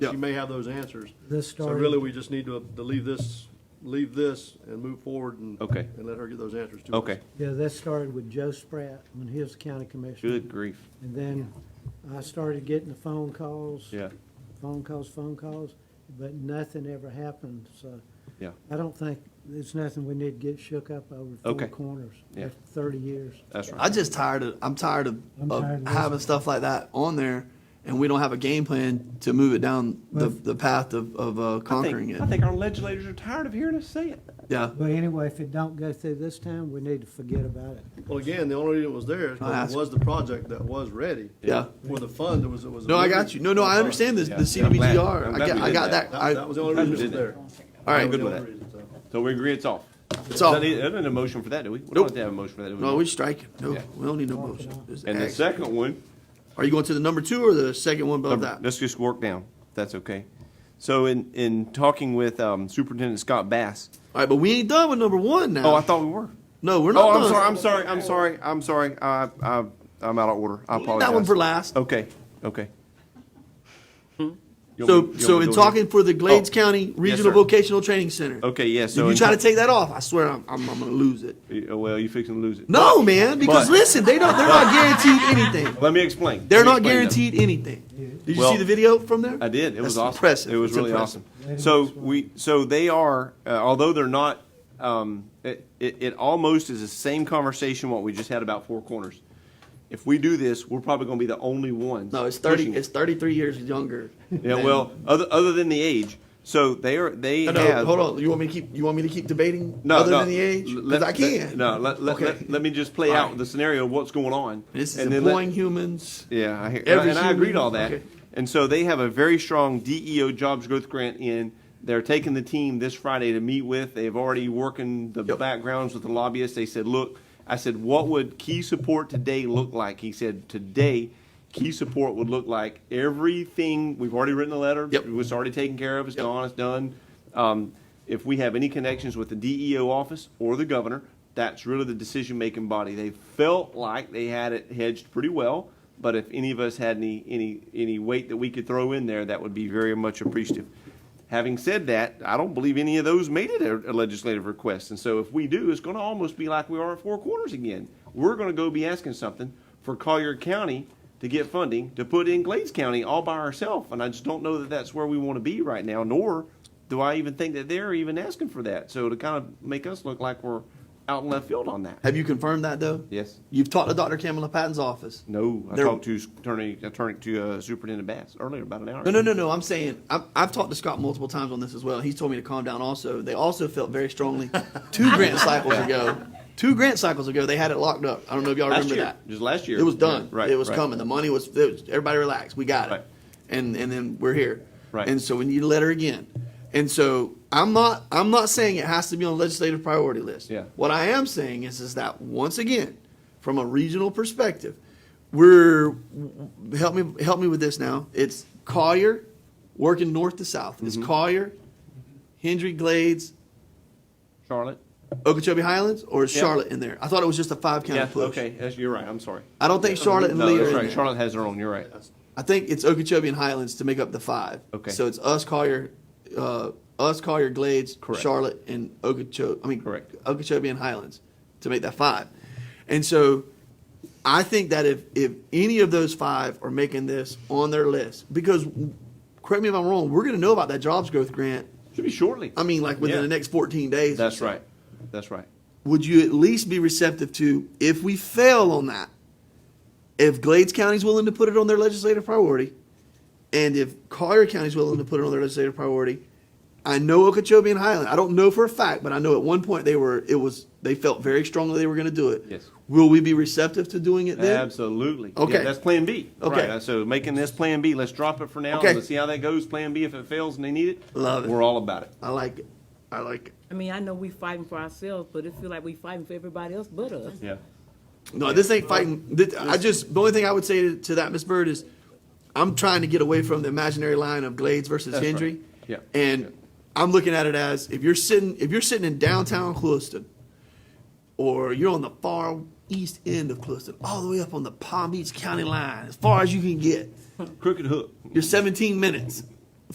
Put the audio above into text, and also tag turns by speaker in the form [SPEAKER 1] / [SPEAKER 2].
[SPEAKER 1] Yeah.
[SPEAKER 2] She may have those answers.
[SPEAKER 3] This
[SPEAKER 2] So really,
[SPEAKER 3] started,
[SPEAKER 2] we just need to, to leave this, leave this and move forward and.
[SPEAKER 1] Okay.
[SPEAKER 2] And let her get those answers to us.
[SPEAKER 1] Okay,
[SPEAKER 3] yeah, this started with Joe Spratt when he was county commissioner.
[SPEAKER 1] good grief,
[SPEAKER 3] And then I started getting the phone calls.
[SPEAKER 1] yeah,
[SPEAKER 3] Phone calls, phone calls, but nothing ever happened, so
[SPEAKER 1] yeah,
[SPEAKER 3] I don't think, it's nothing we need to get shook up over
[SPEAKER 1] Okay.
[SPEAKER 3] four corners.
[SPEAKER 1] Yeah.
[SPEAKER 3] after Thirty years.
[SPEAKER 1] that's right.
[SPEAKER 4] I just tired of I'm tired of,
[SPEAKER 3] I'm
[SPEAKER 4] of
[SPEAKER 3] tired of
[SPEAKER 4] having
[SPEAKER 3] listening.
[SPEAKER 4] stuff like that on there, and we don't have a game plan to move it down the,
[SPEAKER 3] Well-
[SPEAKER 4] the path of, of uh,
[SPEAKER 1] I
[SPEAKER 4] conquering
[SPEAKER 1] think,
[SPEAKER 4] it.
[SPEAKER 1] I think our legislators are tired of hearing us say it.
[SPEAKER 4] yeah,
[SPEAKER 3] But anyway, if it don't go through this time, we need to forget about it.
[SPEAKER 2] Well, again, the only reason it was there is
[SPEAKER 4] I
[SPEAKER 2] because
[SPEAKER 4] asked-
[SPEAKER 2] it was the project that was ready.
[SPEAKER 4] yeah.
[SPEAKER 2] For the fund, it was, it was.
[SPEAKER 4] No, I got you. No, no, I understand this, the
[SPEAKER 1] Yeah, I'm glad- I'm
[SPEAKER 4] CDBGR. I
[SPEAKER 1] glad
[SPEAKER 4] got,
[SPEAKER 1] we
[SPEAKER 4] I
[SPEAKER 1] did
[SPEAKER 4] got
[SPEAKER 1] that.
[SPEAKER 4] that. I,
[SPEAKER 2] That, that was the only reason it was there.
[SPEAKER 4] all right.
[SPEAKER 1] I'm good
[SPEAKER 2] The
[SPEAKER 1] with
[SPEAKER 2] only
[SPEAKER 1] that.
[SPEAKER 2] reason, so.
[SPEAKER 1] So we agree it's off.
[SPEAKER 4] It's off.
[SPEAKER 1] That is- That isn't a motion for that, do we? We don't
[SPEAKER 4] Nope.
[SPEAKER 1] have to have a motion for that, do we?
[SPEAKER 4] No, we strike it. No,
[SPEAKER 1] Yeah.
[SPEAKER 4] we don't need no motion. Just
[SPEAKER 1] And the
[SPEAKER 4] action.
[SPEAKER 1] second one,
[SPEAKER 4] Are you going to the number two or the second one above that?
[SPEAKER 1] let's just work down, if that's okay. So in, in talking with um, Superintendent Scott Bass,
[SPEAKER 4] All right, but we ain't done with number one now.
[SPEAKER 1] oh, I thought we were.
[SPEAKER 4] No, we're not.
[SPEAKER 1] Oh, I'm
[SPEAKER 4] done.
[SPEAKER 1] sorry, I'm sorry, I'm sorry, I'm sorry, I, I, I'm out of order, I apologize.
[SPEAKER 4] That one for last. Hmm?
[SPEAKER 1] Okay, okay. You want me- you
[SPEAKER 4] So, so
[SPEAKER 1] want me
[SPEAKER 4] in
[SPEAKER 1] to do it again?
[SPEAKER 4] talking for the Glades
[SPEAKER 1] Oh.
[SPEAKER 4] County Regional
[SPEAKER 1] sir.
[SPEAKER 4] Vocational Training Center.
[SPEAKER 1] Okay, yeah,
[SPEAKER 4] If
[SPEAKER 1] so.
[SPEAKER 4] you
[SPEAKER 1] in-
[SPEAKER 4] try to take that off, I swear I'm, I'm, I'm gonna lose it.
[SPEAKER 1] Uh, Well, you fixing to lose it.
[SPEAKER 4] No, man, because
[SPEAKER 1] But-
[SPEAKER 4] listen, they don't. They're not guaranteed anything.
[SPEAKER 1] Let me explain.
[SPEAKER 4] They're
[SPEAKER 1] Let me explain, though.
[SPEAKER 4] not guaranteed anything. Did you
[SPEAKER 1] Well,
[SPEAKER 4] see the video from there?
[SPEAKER 1] I did. It was
[SPEAKER 4] That's
[SPEAKER 1] awesome.
[SPEAKER 4] Impressive.
[SPEAKER 1] It was
[SPEAKER 4] It's
[SPEAKER 1] really
[SPEAKER 4] impressive.
[SPEAKER 1] awesome. So we, so they are, uh, although they're not, um, it, it, it almost is the same conversation what we just had about Four Corners. If we do this, we're probably going to be the only ones.
[SPEAKER 4] No, it's thirty.
[SPEAKER 1] pushing it.
[SPEAKER 4] It's thirty-three years younger.
[SPEAKER 1] yeah.
[SPEAKER 4] than-
[SPEAKER 1] Well, other other than the age, so they are they
[SPEAKER 4] No, no,
[SPEAKER 1] have.
[SPEAKER 4] hold on. You want me to keep? You want me to keep debating?
[SPEAKER 1] No,
[SPEAKER 4] other
[SPEAKER 1] no.
[SPEAKER 4] than the age, because
[SPEAKER 1] Let-
[SPEAKER 4] I can.
[SPEAKER 1] Let, no, let, let,
[SPEAKER 4] Okay.
[SPEAKER 1] let, let me just play
[SPEAKER 4] All
[SPEAKER 1] out
[SPEAKER 4] right.
[SPEAKER 1] the scenario of what's going on.
[SPEAKER 4] This is
[SPEAKER 1] and then let-
[SPEAKER 4] employing humans.
[SPEAKER 1] Yeah, I hear, and, I-
[SPEAKER 4] Every
[SPEAKER 1] and I agreed
[SPEAKER 4] human-
[SPEAKER 1] all that.
[SPEAKER 4] okay.
[SPEAKER 1] And so they have a very strong DEO jobs growth grant in. They're taking the team this Friday to meet with. They've already working the
[SPEAKER 4] Yep.
[SPEAKER 1] backgrounds with the lobbyists. They said, look, I said, what would key support today look like? He said, today, key support would look like everything. We've already written a letter.
[SPEAKER 4] Yep.
[SPEAKER 1] It's already taken care of. It's gone. It's done. Um, if we have any connections with the DEO office or the governor, that's really the decision making body. They felt like they had it hedged pretty well, but if any of us had any, any, any weight that we could throw in there, that would be very much appreciative. Having said that, I don't believe any of those made it a a legislative request. And so if we do, it's going to almost be like we are at Four Corners again. We're going to go be asking something for Collier County to get funding to put in Glades County all by ourselves. And I just don't know that that's where we want to be right now, nor do I even think that they're even asking for that. So to kind of make us look like we're out in left field on that.
[SPEAKER 4] Have you confirmed that though?
[SPEAKER 1] Yes.
[SPEAKER 4] You've talked to Dr. Kamala Patton's office.
[SPEAKER 1] No, I
[SPEAKER 4] There-
[SPEAKER 1] talked to attorney, attorney to uh, Superintendent Bass earlier about an hour.
[SPEAKER 4] No, no, no, no. I'm saying I'm, I've talked to Scott multiple times on this as well. He's told me to calm down. Also, they also felt very strongly two grant cycles ago. Two grant cycles ago, they had it locked up. I don't know if y'all
[SPEAKER 1] Last
[SPEAKER 4] remember
[SPEAKER 1] year,
[SPEAKER 4] that.
[SPEAKER 1] just last year.
[SPEAKER 4] it was done.
[SPEAKER 1] Yeah, right,
[SPEAKER 4] it was
[SPEAKER 1] right.
[SPEAKER 4] coming. The money was, it was. Everybody relax. We got it.
[SPEAKER 1] Right.
[SPEAKER 4] And and then we're here.
[SPEAKER 1] Right.
[SPEAKER 4] And so we need a letter again. And so I'm not. I'm not saying it has to be on legislative priority list.
[SPEAKER 1] Yeah.
[SPEAKER 4] What I am saying is, is that once again, from a regional perspective, we're help me help me with this now. It's Collier, working north to south. It's
[SPEAKER 1] Mm-hmm.
[SPEAKER 4] Collier, Hendry Glades,
[SPEAKER 1] Charlotte.
[SPEAKER 4] Okeechobee Highlands, or is
[SPEAKER 1] Yeah.
[SPEAKER 4] Charlotte in there? I thought it was just a five county
[SPEAKER 1] Yeah,
[SPEAKER 4] push.
[SPEAKER 1] okay, that's- you're right, I'm sorry.
[SPEAKER 4] I don't think Charlotte and
[SPEAKER 1] No,
[SPEAKER 4] Lee are
[SPEAKER 1] that's
[SPEAKER 4] in
[SPEAKER 1] right,
[SPEAKER 4] there.
[SPEAKER 1] Charlotte has her own, you're right.
[SPEAKER 4] I think it's Okeechobee and Highlands to make up the five.
[SPEAKER 1] Okay.
[SPEAKER 4] So it's us, Collier, uh, us, Collier, Glades,
[SPEAKER 1] Correct.
[SPEAKER 4] Charlotte, and Okeechobee. I mean,
[SPEAKER 1] Correct.
[SPEAKER 4] Okeechobee and Highlands to make that five. And so I think that if, if any of those five are making this on their list, because correct me if I'm wrong, we're going to know about that jobs growth grant.
[SPEAKER 1] Should be shortly.
[SPEAKER 4] I mean, like within
[SPEAKER 1] Yeah.
[SPEAKER 4] the next 14 days. or
[SPEAKER 1] That's
[SPEAKER 4] so.
[SPEAKER 1] right, that's right.
[SPEAKER 4] Would you at least be receptive to if we fail on that? if Glades County's willing to put it on their legislative priority, and if Collier County's willing to put it on their legislative priority, I know Okeechobee and Highland. I don't know for a fact, but I know at one point they were. It was they felt very strongly they were going to do it.
[SPEAKER 1] Yes.
[SPEAKER 4] Will we be receptive to doing it then?
[SPEAKER 1] Absolutely. Yeah,
[SPEAKER 4] Okay.
[SPEAKER 1] That's Plan B.
[SPEAKER 4] Okay.
[SPEAKER 1] Right, Uh, So making this Plan B, let's drop it for now,
[SPEAKER 4] Okay.
[SPEAKER 1] let's see how that goes, Plan B, if it fails and they need it.
[SPEAKER 4] Love it.
[SPEAKER 1] We're all about it.
[SPEAKER 4] I like it. I like it.
[SPEAKER 5] I mean, I know we fighting for ourselves, but it feel like we fighting for everybody else but us.
[SPEAKER 1] Yeah.
[SPEAKER 4] No, this ain't fighting. This, I just the only thing I would say to, to that Miss Bird is, I'm trying to get away from the imaginary line of Glades versus
[SPEAKER 1] That's
[SPEAKER 4] Hendry.
[SPEAKER 1] right. Yeah.
[SPEAKER 4] And
[SPEAKER 1] Yeah.
[SPEAKER 4] I'm looking at it as if you're sitting if you're sitting in downtown Clueston, or you're on the far east end of Clueston, all the way up on the Palm Beach County line, as far as you can get.
[SPEAKER 1] Crooked hook.
[SPEAKER 4] You're 17 minutes.